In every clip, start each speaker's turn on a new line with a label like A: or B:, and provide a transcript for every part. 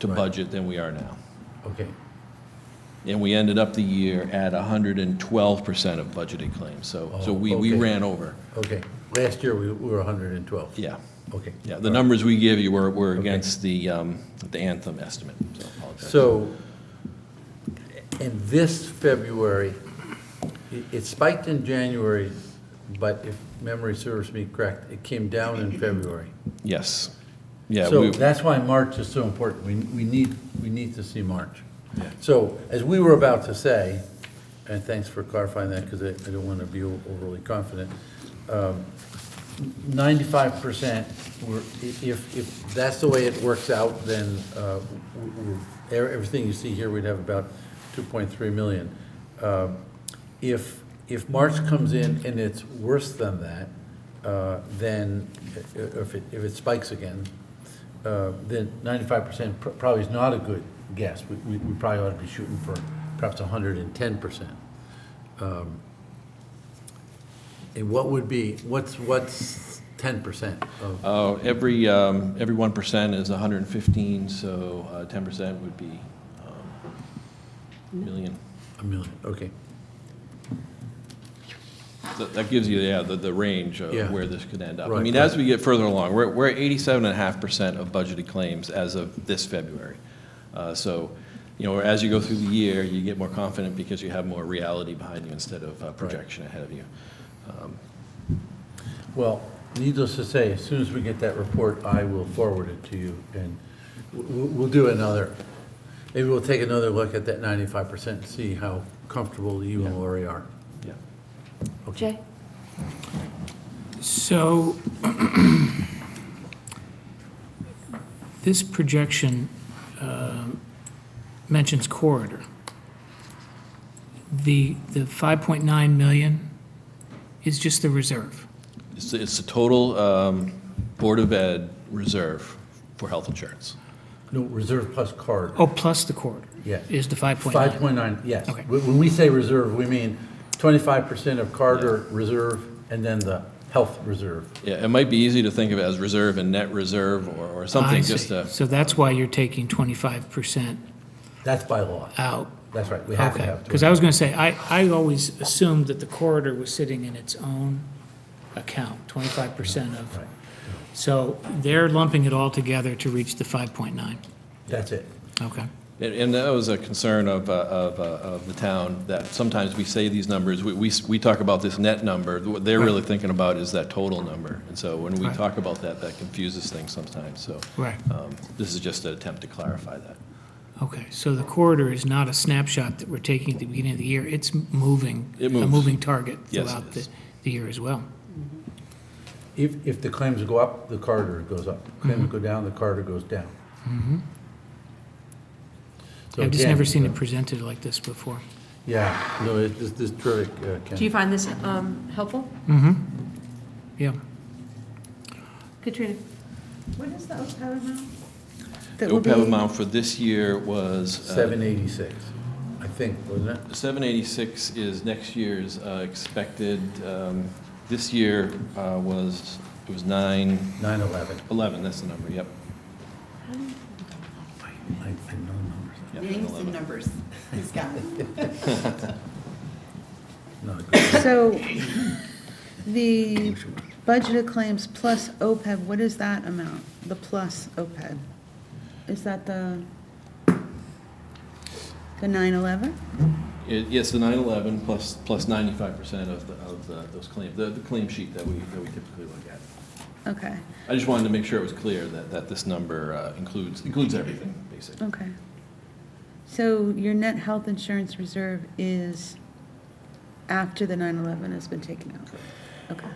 A: to budget than we are now.
B: Okay,
A: And we ended up the year at 112% of budgeted claims, so, so we, we
B: Oh, okay.
A: ran over.
B: okay. Last year, we we were 112.
A: Yeah,
B: Okay.
A: yeah, the numbers we give you were, were against the, um, the Anthem estimate, so I apologize.
B: So, in this February, it- it spiked in January, but if memory serves me correct, it came down in February.
A: Yes, yeah,
B: So
A: we,
B: that's why March is so important. We, we need, we need to see March.
A: Yeah.
B: So as we were about to say, and thanks for clarifying that because I I don't want to be o- overly confident. um, Ninety-five percent, were i- if, if that's the way it works out, then uh, w- w- e- everything you see here, we'd have about two point three million. Uh, If, if March comes in and it's worse than that, uh, then i- i- if it, if it spikes again, uh, then ninety-five percent probably is not a good guess. We, we we probably ought to be shooting for perhaps hundred and ten percent. Um, And what would be, what's, what's ten percent of?
A: uh, every, um, every 1% is 115, so uh, 10% would be, um, million.
B: A million, okay.
A: So That gives you, yeah, the, the range of
B: Yeah.
A: where this could end up. I
B: Right,
A: mean,
B: right.
A: as we get further along, we're, we're at eighty-seven and a half percent of budgeted claims as of this February. Uh, so, you know, as you go through the year, you get more confident because you have more reality behind you instead of uh, projection ahead of you.
B: Well, needless to say, as soon as we get that report, I will forward it to you, and w- w- we'll do another, maybe we'll take another look at that ninety-five percent and see how comfortable you and Lori are.
A: Yeah.
C: Jay?
D: So this projection um, mentions corridor. The, the 5.9 million is just the reserve.
A: It's, the- it's the total, um, Board of Ed reserve for health insurance.
B: No, reserve plus card.
D: Oh, plus the corridor
B: Yeah.
D: is the
B: Five
D: 5.9.
B: point nine, yes.
D: Okay.
B: When when we say reserve, we mean twenty-five percent of Carter reserve and then the health reserve.
A: Yeah, it might be easy to think of it as reserve and net reserve or, or something
D: I
A: just
D: see.
A: to,
D: So that's why you're taking 25%
B: That's by law.
D: out.
B: That's right, we have to have.
D: Because I was going to say, I, I always assumed that the corridor was sitting in its own account, 25% of.
B: Right.
D: So they're lumping it all together to reach the 5.9.
B: That's it.
D: Okay.
A: And- And that was a concern of, uh, of, uh, of the town, that sometimes we say these numbers, we, we, we talk about this net number, what they're really thinking about is that total number. And so when we
D: Right.
A: talk about that, that confuses things sometimes, so.
D: Right.
A: um, This is just an attempt to clarify that.
D: Okay. So the corridor is not a snapshot that we're taking at the beginning of the year. It's moving,
A: It
D: a
A: moves.
D: moving target
A: Yes, it
D: throughout
A: is.
D: the, the year as well.
B: If, if the claims go up, the corridor goes up.
D: Mm-hmm.
B: Claims go down, the corridor goes down. So
D: I've just
B: again,
D: never seen
B: uh,
D: it presented like this before.
B: Yeah, no, it- this, this is terrific, uh,
C: Do you
B: Ken.
C: find this um, helpful?
D: Yeah.
C: Katrina?
E: What is the OPEB amount?
A: The
E: That will be-
A: OPEB amount for this year was. uh,
B: Seven eighty-six, I think, wasn't it?
A: 786 is next year's uh, expected, um, this year uh, was, it was 911,
B: Nine eleven.
A: that's the number, yep.
B: I I know numbers.
A: yep,
F: Names
A: 911.
F: and numbers, he's got it.
B: Not a good-
E: So the budgeted claims plus OPEB, what is that amount? The plus OPEB? Is that the, the 911?
A: It- Yes, the 9/11 plus, plus 95% of, the- of the- those claims, the the claim sheet that we, that we typically look at.
E: Okay,
A: I just wanted to make sure it was clear that, that this number uh, includes, includes everything, basically.
E: okay. So your net health insurance reserve is after the 911 has been taken out? Okay.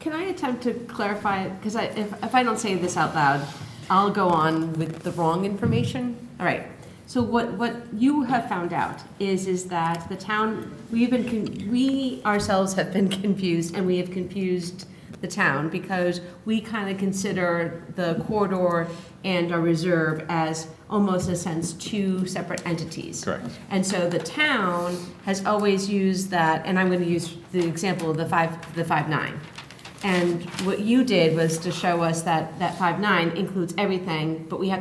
C: Can I attempt to clarify it? Because I, if, if I don't say this out loud, I'll go on with the wrong information. All right. So what, what you have found out is, is that the town, we've been, con- we ourselves have been confused and we have confused the town because we kind of consider the corridor and our reserve as almost in a sense two separate entities.
A: Correct.
C: And so the town has always used that, and I'm going to use the example of the five, the five nine. And what you did was to show us that that five nine includes everything, but we have